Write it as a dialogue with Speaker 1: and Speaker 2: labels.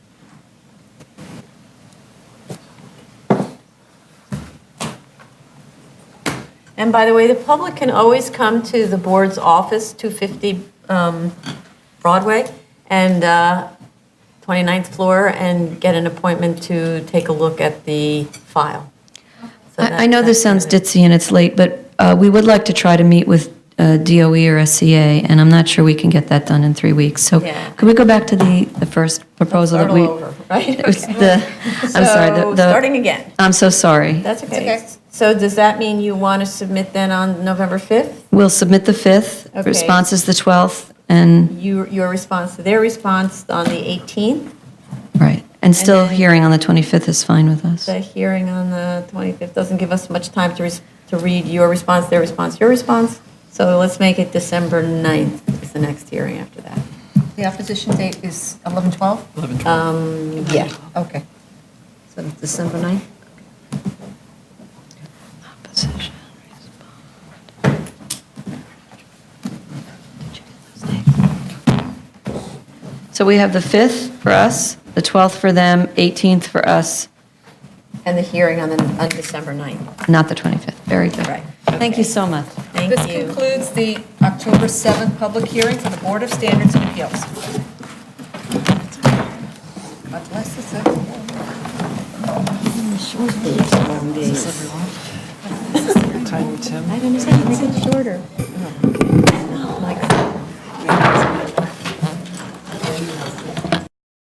Speaker 1: And by the way, the public can always come to the board's office, 250 um, Broadway and uh, 29th floor, and get an appointment to take a look at the file. So that-
Speaker 2: I I know this
Speaker 1: that's
Speaker 2: sounds
Speaker 1: kinda-
Speaker 2: ditzy and it's late, but uh, we would like to try to meet with uh, DOE or SCA, and I'm not sure we can get that done in three weeks. So
Speaker 1: Yeah.
Speaker 2: could we go back to the, the first proposal
Speaker 1: Start
Speaker 2: that
Speaker 1: all
Speaker 2: we?
Speaker 1: over, right?
Speaker 2: It was
Speaker 1: Okay.
Speaker 2: the- I'm sorry. the-
Speaker 1: So,
Speaker 2: the-
Speaker 1: starting again.
Speaker 2: I'm so sorry.
Speaker 1: That's okay.
Speaker 3: okay.
Speaker 1: So does that mean you want to submit then on November 5th?
Speaker 2: We'll submit the 5th,
Speaker 1: Okay.
Speaker 2: response is the 12th, and,
Speaker 1: You- Your response to their response on the 18th,
Speaker 2: right. And still
Speaker 1: then-
Speaker 2: hearing on the 25th is fine with us.
Speaker 1: the hearing on the 25th doesn't give us much time to res- to read your response, their response, your response. So let's make it December 9th is the next hearing after that.
Speaker 3: The opposition date is 11, 12?
Speaker 1: Um, Yeah.
Speaker 3: Okay. So it's December 9th?
Speaker 2: Opposition, respond. So we have the 5th for us, the 12th for them, 18th for us,
Speaker 1: And the hearing on the, on December 9th.
Speaker 2: not the 25th. Very good.
Speaker 1: Right,
Speaker 2: Thank
Speaker 1: okay.
Speaker 2: you so much.
Speaker 1: Thank
Speaker 3: This
Speaker 1: you.
Speaker 3: concludes the October 7th public hearing for the Board of Standards and Appeals. God bless us, everyone.
Speaker 4: Tiny Tim.
Speaker 1: I don't know, make it shorter.